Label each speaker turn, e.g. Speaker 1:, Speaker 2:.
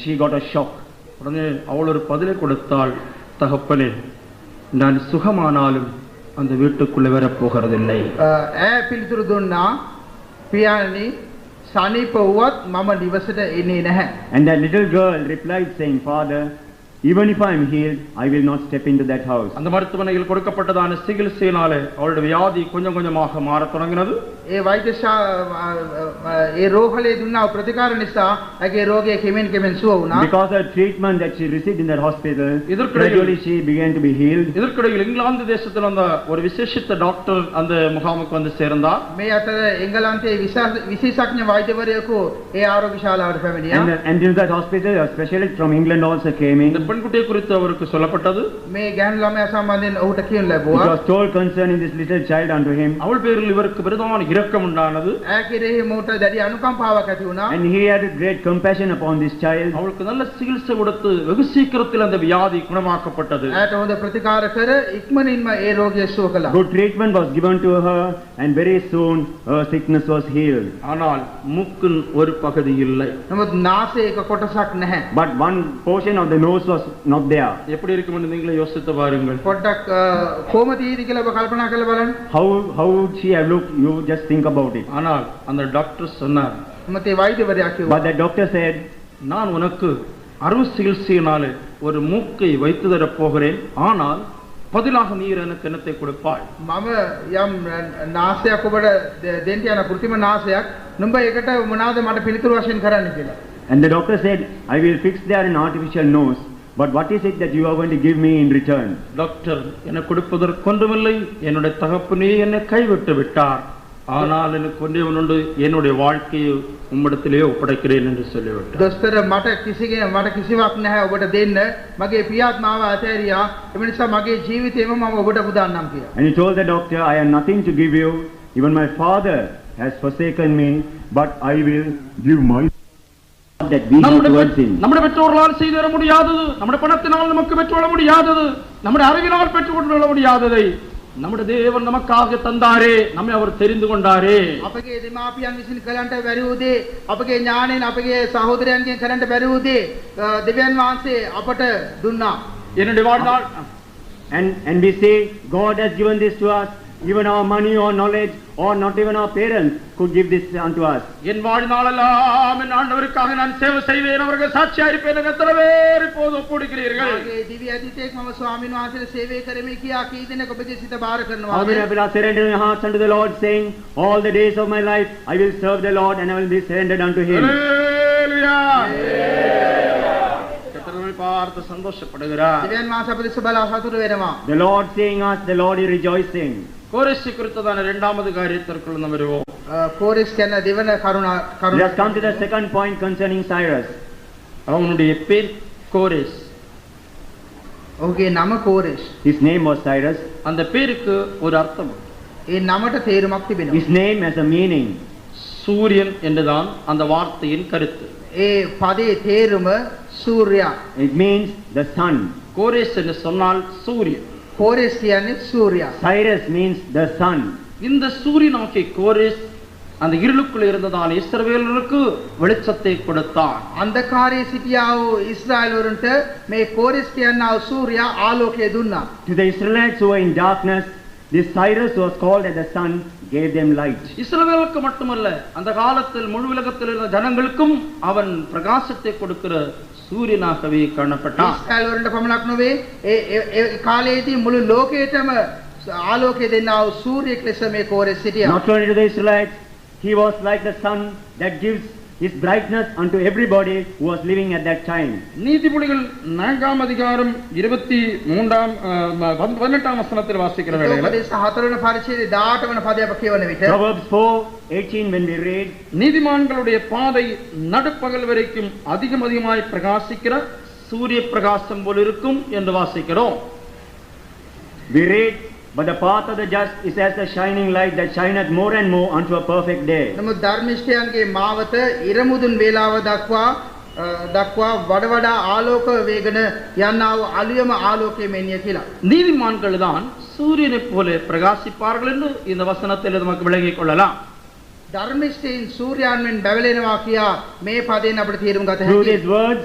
Speaker 1: She got a shock உடனே அவள் ஒரு பதிலை கொடுத்தாள் தகப்பனே நான் சுகமானாலும் அந்த வீட்டுக்குள்ளே வரப்போகிறதில்லை
Speaker 2: ඇ පිළිතුරු දුන්නා පියාණනි සනීප වුවත් මම නිවසට එන්නේ නැහැ.
Speaker 3: And that little girl replied, saying, Father, even if I am healed, I will not step into that house.
Speaker 1: அந்த மருத்துவமனையில் கொடுக்கப்பட்டதான சிகிச்சையினாலே அவளுடைய வியாதி கொஞ்சம் கொஞ்சமாக மாறத் தொடங்கினது
Speaker 2: ඒ වෛද්‍යශා ඒ රෝහලේ දුන්නා වූ ප්‍රතිකාර නිසා ඇගේ රෝගය කෙමෙන් කෙමෙන් සුව වුණා.
Speaker 3: Because of treatment that she received in that hospital,
Speaker 1: Idhirkkidaiyil-
Speaker 3: gradually she began to be healed.
Speaker 1: இதற்கிடையில் இங்கிலாந்து தேசத்தில் அந்த ஒரு விசேஷித்த டாக்டர் அந்த முகாமுக்கு வந்து சேர்ந்தார்
Speaker 2: මේ අතර එංගලන්තයේ විශා- විශේෂඥ වෛද්‍යවරයෙකු ඒ ආරෝග්‍ය ශාලාවට
Speaker 3: And, uh,
Speaker 2: පැමිණියා.
Speaker 3: and in that hospital, a specialist from England also came
Speaker 1: இந்த
Speaker 3: in.
Speaker 1: பெண்குட்டியை குறித்து அவருக்கு சொல்லப்பட்டது
Speaker 2: මේ ගැහැණු ළමයා සම්බන්ධයෙන් ඔහුට කියනු
Speaker 3: It
Speaker 2: ලැබුවා.
Speaker 3: was told concerning this little child unto him.
Speaker 1: அவள் பேரில் இவருக்கு பிரதான இரக்கம் உண்டானது
Speaker 2: ඇ කෙරෙහි මෝට දැඩි අනුකම්පාවක් ඇති වුණා.
Speaker 3: And he had great compassion upon this child.
Speaker 1: அவளுக்கு நல்ல சிகிச்சை கொடுத்து வெகு சீக்கிரத்தில் அந்த வியாதி குணமாக்கப்பட்டது
Speaker 2: ඇයට හොඳ ප්‍රතිකාර කර ඉක්මනින්ම ඒ රෝගය සුව කළා.
Speaker 3: Good treatment was given to her, and very soon her sickness was healed.
Speaker 1: ஆனால் மூக்கின் ஒரு பகுதி இல்லை
Speaker 2: නමුත් නාසයේ එක කොටසක් නැහැ.
Speaker 3: But one portion of the nose was not there.
Speaker 1: எப்படி இருக்கும் என்று நீங்களே யோசித்து பாருங்கள்
Speaker 2: පොඩ්ඩක් අ, කොහොම තියෙද කියලා ඔබ කල්පනා කරලා බලන්න.
Speaker 3: How, how would she have looked? You just think about it.
Speaker 1: ஆனால் அந்த டாக்டர் சொன்னார்
Speaker 2: මොකද ඒ වෛද්‍යවරයා
Speaker 3: But
Speaker 2: කිව්වා.
Speaker 3: the doctor said,
Speaker 1: நான் உனக்கு அறுவை சிகிச்சையினாலே ஒரு மூக்கை வைத்து தரப் போகிறேன் ஆனால் பதிலாக நீர் எனக்கு என்னத்தை கொடுப்பாய்
Speaker 2: මම යම් නාසයක් ඔබට ද- දෙන්න යන કૃතිම නාසයක්. නුඹ ඒකට මොනවාද මට පිළිතුරු වශයෙන් කරන්න කියලා.
Speaker 3: And the doctor said, I will fix there an artificial nose, but what is it that you are going to give me in return?
Speaker 1: Doctor எனக்கு கொடுப்பதற்கொன்றுமில்லை என்னுடைய தகப்பனே என்னை கைவிட்டு விட்டார் ஆனால் எனக்கு ஒன்றே ஒன்று என்னுடைய வாழ்க்கையை உம்மிடத்திலே ஒப்படைக்கிறேன் என்று சொல்லிவிட்டார்
Speaker 2: දොස්තර මට කිසිගේ මට කිසිවක් නැහැ ඔබට දෙන්න. මගේ පියාත් මාව අතහැරියා. ඒ නිසා මගේ ජීවිතේම මම ඔබට පුදන්නම් කියලා.
Speaker 3: And he told the doctor, I have nothing to give you, even my father has forsaken me, but I will give my that we have
Speaker 1: நம்முடைய
Speaker 3: towards
Speaker 1: பெற்-
Speaker 3: him.
Speaker 1: நம்முடைய பெற்றோர்களால் செய்து தர முடியாதது நம்முடைய பணத்தினால் நமக்கு பெற்றுக்கொள்ள முடியாதது நம்முடைய அறிவினால் பெற்றுக்கொள்ள முடியாததை நம்முடைய தேவன் நமக்காக தந்தாரே நம்மை அவர் தெரிந்து கொண்டாரே
Speaker 2: අපගේ දෙමාපියන් විසින් කරන්නට බැරි වූ දේ අපගේ ඥාණයෙන් අපගේ සහෝදරයන්ගෙන් කරන්නට බැරි වූ දේ අ, දෙවියන් වහන්සේ අපට දුන්නා.
Speaker 1: என்னுடைய வாழ்நாள்
Speaker 3: And, and we say, God has given this to us, even our money or knowledge, or not even our parents could give this unto us.
Speaker 1: என் வாழ்நாளெல்லாம் என் ஆண்டவருக்காக நான் சேவை செய்வேன் அவர்கள் சாட்சியா இருப்பேன் என எத்தனை பேர் இப்போது ஒப்புடுகிறீர்கள்
Speaker 2: මගේ දිව්‍ය අතිතෙක් මම ස්වාමීන් වහන්සේට සේවය කරමි කියා key දෙනෙක් ඔබගේ සිත බාර
Speaker 3: How many
Speaker 2: කරනවා.
Speaker 3: people are surrendered their hearts unto the Lord, saying, All the days of my life I will serve the Lord and I will be surrendered unto him.
Speaker 1: ஹல்லேலூயா. கர்த்தர் நம்மை பார்த்து சந்தோஷப்படுகிறார்
Speaker 2: දෙවියන් වහන්සේ අප දෙස බලා සතුට වෙනවා.
Speaker 3: The Lord seeing us, the Lord is rejoicing.
Speaker 1: கோரேசி குறித்ததான இரண்டாவது காரியத்திற்குள் நாம் வருவோம்
Speaker 2: අ, කෝරෙස් කියන දෙවන කරුණ
Speaker 3: Let us come to
Speaker 2: කරුණ
Speaker 3: the second point concerning Cyrus.
Speaker 1: அவனுடைய பேர் கோரேஸ்
Speaker 2: ඔහුගේ නම Koresh.
Speaker 3: His name was Cyrus.
Speaker 1: அந்த பேருக்கு ஒரு அர்த்தம் உண்டு.
Speaker 2: ඒ නමට තේරුමක්
Speaker 3: His
Speaker 2: තිබෙනවා.
Speaker 3: name has a meaning.
Speaker 1: சூரியன் என்றுதான் அந்த வார்த்தையின் கருத்து
Speaker 2: ඒ පදේ තේරුම සූර්යා.
Speaker 3: It means the sun.
Speaker 1: கோரேஸ் என்று சொன்னால் சூரியன்
Speaker 2: කෝරෙස් කියන්නේ සූර්යා.
Speaker 3: Cyrus means the sun.
Speaker 1: இந்த சூரியனாகிய கோரேஸ் அந்த இருளுக்குள் இருந்ததால் இஸ்ரவேலருக்கு வெளிச்சத்தை கொடுத்தான்
Speaker 2: අන්ධකාරයේ සිටියා වූ ඊශ්‍රායලවරුන්ට මේ කෝරෙස් කියනා වූ සූර්යා ආලෝකය දුන්නා.
Speaker 3: To the Israelites who were in darkness, this Cyrus who was called as the sun, gave them light.
Speaker 1: இஸ்ரவேலுக்கு மட்டுமல்ல அந்த காலத்தில் முழு உலகத்தில் இருந்த ஜனங்களுக்கும் அவன் பிரகாசத்தை கொடுக்கிற சூரியனாகவே காணப்பட்டான்
Speaker 2: ඊශ්‍රායලවරුන්ට පමණක් නොවේ ඒ ඒ- ඒ කාලයේදී මුළු ලෝකයටම ආලෝකය දෙන්නා වූ සූර්යෙක් ලෙස මේ කෝරෙස් සිටියා.
Speaker 3: Not only to the Israelites, he was like the sun that gives his brightness unto everybody who was living at that time.
Speaker 1: நீதிபதிகள் நான்காம் அதிகாரம் இருபத்தி மூன்றாம் அஹ், பதி- பதினெட்டாம் வசனத்தில் வாசிக்கிற வேளையில்
Speaker 2: උපදේශ හතරවන පරිච්ඡේදයේ 18 වන පදය අප කියවන විට
Speaker 3: Proverbs 4 18, when we read,
Speaker 1: நீதிமான்களுடைய பாதை நடுப்பகல் வரைக்கும் அதிகம் அதிகமாய் பிரகாசிக்கிற சூரிய பிரகாசம் போல் இருக்கும் என்று வாசிக்கிறோம்
Speaker 3: We read, But the path of the just is as the shining light that shineth more and more unto a perfect day.
Speaker 2: නමුත් ධර්මිෂ්ඨයන්ගේ මාවත ඉරමුදුන් වේලාව දක්වා අ, දක්වා වඩ වඩා ආලෝක වේගන යන්නා වූ අලුයම ආලෝකයේ මෙන්ය කියලා.
Speaker 1: நீதிமான்கள் தான் சூரியனைப் போல பிரகாசிப்பார்கள் என்று இந்த வசனத்தில் நமக்கு விளங்கிக் கொள்ளலாம்
Speaker 2: ධර්මිෂ්ඨයින් සූර්යයන් මෙන් බැවලෙනවා කියා මේ පදයෙන් අපට තේරුම් ගත
Speaker 3: Through
Speaker 2: හැකියි.
Speaker 3: these words,